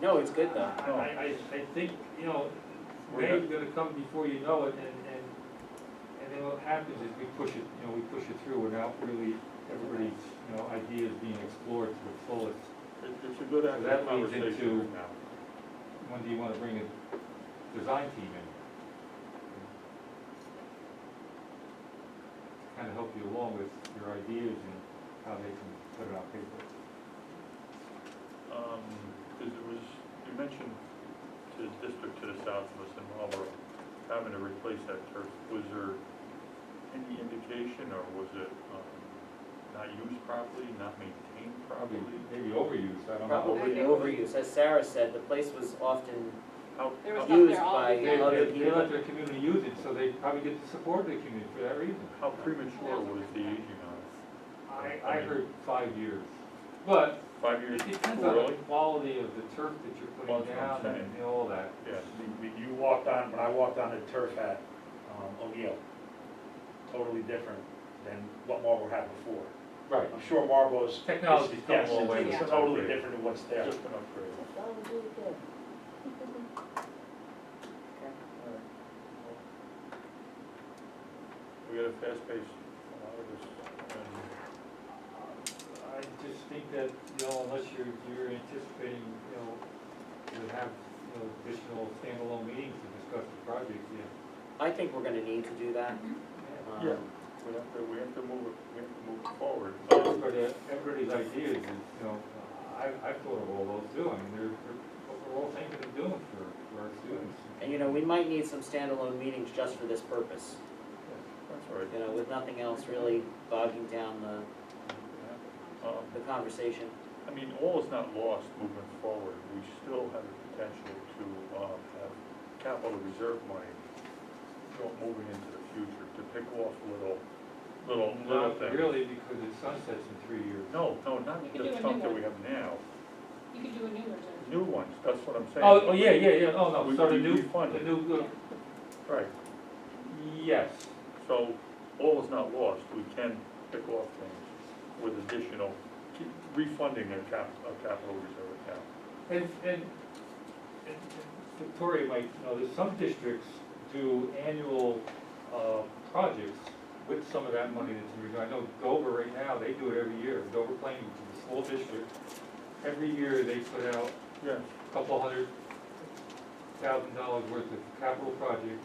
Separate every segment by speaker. Speaker 1: No, it's good though.
Speaker 2: I, I, I think, you know,
Speaker 3: We're
Speaker 2: May's gonna come before you know it, and, and, and then what happens is we push it, you know, we push it through without really everybody's, you know, ideas being explored to the fullest.
Speaker 3: It- It's a good
Speaker 2: So that
Speaker 3: active
Speaker 2: leads
Speaker 3: conversation
Speaker 2: into-
Speaker 3: right now.
Speaker 2: When do you wanna bring a design team in? Kinda help you along with your ideas and how they can put it on paper.
Speaker 3: Um, because there was, you mentioned to the district to the south of us in Marlboro, having to replace that turf. Was there any indication or was it, um, not used properly, not maintained
Speaker 2: Probably,
Speaker 3: properly?
Speaker 2: maybe overuse, I don't know.
Speaker 1: Probably overuse, as Sarah said, the place was often
Speaker 3: How-
Speaker 4: There was
Speaker 3: how-
Speaker 4: stuff there
Speaker 1: used
Speaker 4: all
Speaker 1: by
Speaker 2: They,
Speaker 4: year.
Speaker 1: other
Speaker 2: they, they
Speaker 1: people.
Speaker 2: let their community use it, so they probably get the support of the community for that reason.
Speaker 3: How premature was the aging on it?
Speaker 2: I, I heard five years, but
Speaker 3: Five years?
Speaker 2: it depends on the
Speaker 3: Really?
Speaker 2: quality of the turf that you're
Speaker 3: Well,
Speaker 2: putting
Speaker 3: that's what I'm
Speaker 2: down and
Speaker 3: saying.
Speaker 2: all that.
Speaker 3: Yeah.
Speaker 5: We- we- You walked on, when I walked on the turf at um, O'Neill, totally different than what Marlboro had before.
Speaker 2: Right.
Speaker 5: I'm sure Marlboro's.
Speaker 2: Technology's come a
Speaker 5: Yes,
Speaker 2: long way
Speaker 5: it's
Speaker 4: with
Speaker 5: Totally
Speaker 3: upgrade.
Speaker 5: different than what's there.
Speaker 3: Just an upgrade. We got a fast pace, a lot of this, and
Speaker 2: I just think that, you know, unless you're, you're anticipating, you know, to have, you know, additional standalone meetings to discuss the project, yeah.
Speaker 1: I think we're gonna need to do that. Um,
Speaker 3: Yeah. we have to, we have to move, it- we have to move it forward.
Speaker 2: But uh, everybody's ideas is, you know, I, I've thought of all those too, I mean, they're, they're, what we're all thinking of doing for, for our students.
Speaker 1: And you know, we might need some standalone meetings just for this purpose,
Speaker 3: That's all right.
Speaker 1: you know, with nothing else really bogging down the,
Speaker 3: Um,
Speaker 1: the conversation.
Speaker 3: I mean, all is not lost moving forward. We still have the potential to um, have capital reserve money go- moving into the future to pick off little, little, little
Speaker 2: Not
Speaker 3: things.
Speaker 2: really, because it sunsets in three years.
Speaker 3: No, no, not
Speaker 4: You can do
Speaker 3: the
Speaker 4: a
Speaker 3: stuff
Speaker 4: new
Speaker 3: that we
Speaker 4: one.
Speaker 3: have now.
Speaker 4: You could do a new reserve.
Speaker 3: New ones, that's what I'm saying.
Speaker 2: Oh, oh, yeah, yeah, yeah, oh, no,
Speaker 3: We-
Speaker 2: so the
Speaker 3: we-
Speaker 2: new,
Speaker 3: we fund
Speaker 2: the
Speaker 3: it.
Speaker 2: new, uh,
Speaker 3: Right,
Speaker 2: yes,
Speaker 3: so all is not lost. We can pick off things with additional, keep refunding our cap, our capital reserve account.
Speaker 2: and, and, and and Victoria might know that some districts do annual, uh, projects with some of that money that's in reserve. I know Dover right now, they do it every year, Dover Plain, which is a small district, every year they put out
Speaker 3: Yes.
Speaker 2: a couple hundred thousand dollars worth of capital projects,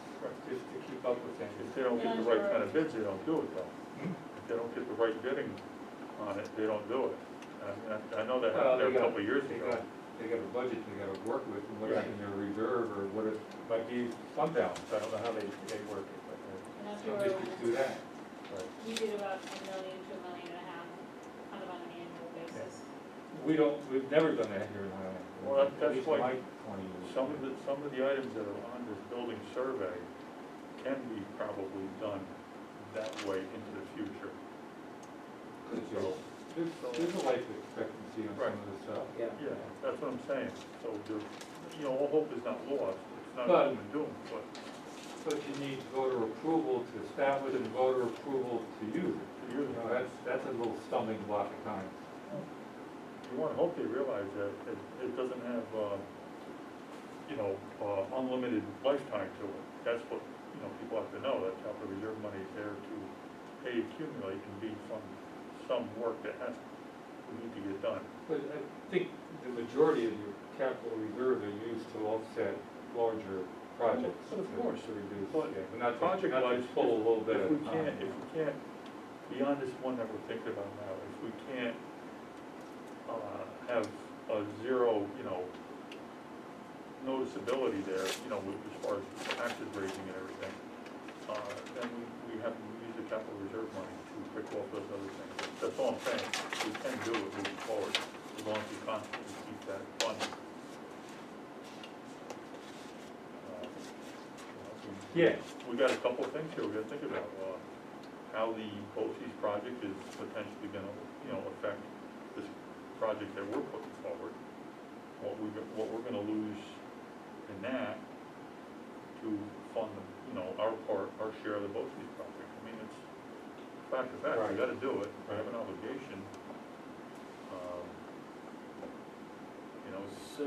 Speaker 2: just to keep up with that.
Speaker 3: If they don't get the right kind of bids, they don't do it though. If they don't get the right bidding on it, they don't do it. And I, I know that
Speaker 2: Well,
Speaker 3: happened there
Speaker 2: they
Speaker 3: a
Speaker 2: got-
Speaker 3: couple of years
Speaker 2: They
Speaker 3: ago.
Speaker 2: got, they got a budget they gotta work with, and what's in their reserve, or what it might be fund balance, I don't know how they, they work it, but
Speaker 4: And
Speaker 2: uh,
Speaker 4: that's
Speaker 2: some
Speaker 4: where
Speaker 2: districts do
Speaker 4: we went.
Speaker 2: that.
Speaker 4: We did about a million to a million and a half, kind of on an annual basis.
Speaker 2: We don't, we've never done that here in Highland.
Speaker 3: Well, that-
Speaker 2: At
Speaker 3: that's
Speaker 2: least
Speaker 3: why
Speaker 2: my twenty years.
Speaker 3: Some of the, some of the items that are on this building survey can be probably done that way into the future.
Speaker 2: Good job. There's, there's a life expectancy on some of this stuff.
Speaker 1: Yeah.
Speaker 3: Yeah, that's what I'm saying. So there's, you know, all hope is not lost. It's not
Speaker 2: But-
Speaker 3: doom and doom, but
Speaker 2: But you need voter approval to establish and voter approval to use it.
Speaker 3: you,
Speaker 2: You know, that's, that's a little stumbling block at times.
Speaker 3: you want to hope they realize that it, it doesn't have, uh, you know, uh, unlimited lifetime to it. That's what, you know, people have to know, that capital reserve money is there to, A, accumulate and B, fund some work that has, we need to get done.
Speaker 2: But I think the majority of your capital reserves are used to offset larger projects.
Speaker 3: But of course.
Speaker 2: To reduce,
Speaker 3: But
Speaker 2: yeah, but not to, not
Speaker 3: project-wise,
Speaker 2: to pull a little bit
Speaker 3: If
Speaker 2: of.
Speaker 3: we
Speaker 2: time.
Speaker 3: can't, if we can't, beyond this one that we're thinking about now, if we can't, uh, have a zero, you know, noticeability there, you know, with, as far as taxes raising and everything, uh, then we, we have to use the capital reserve money to pick off those other things. That's all I'm saying, we can do it moving forward, as long as we constantly keep that funding. Uh, we-
Speaker 2: Yeah.
Speaker 3: We got a couple of things here we gotta think about, uh, how the BOCES project is potentially gonna, you know, affect this project that we're putting forward. What we, what we're gonna lose in that to fund, the you know, our part, our share of the BOCES project. I mean, it's fact of fact, we
Speaker 2: Right.
Speaker 3: gotta do it, we have an obligation. Um, You know, it's-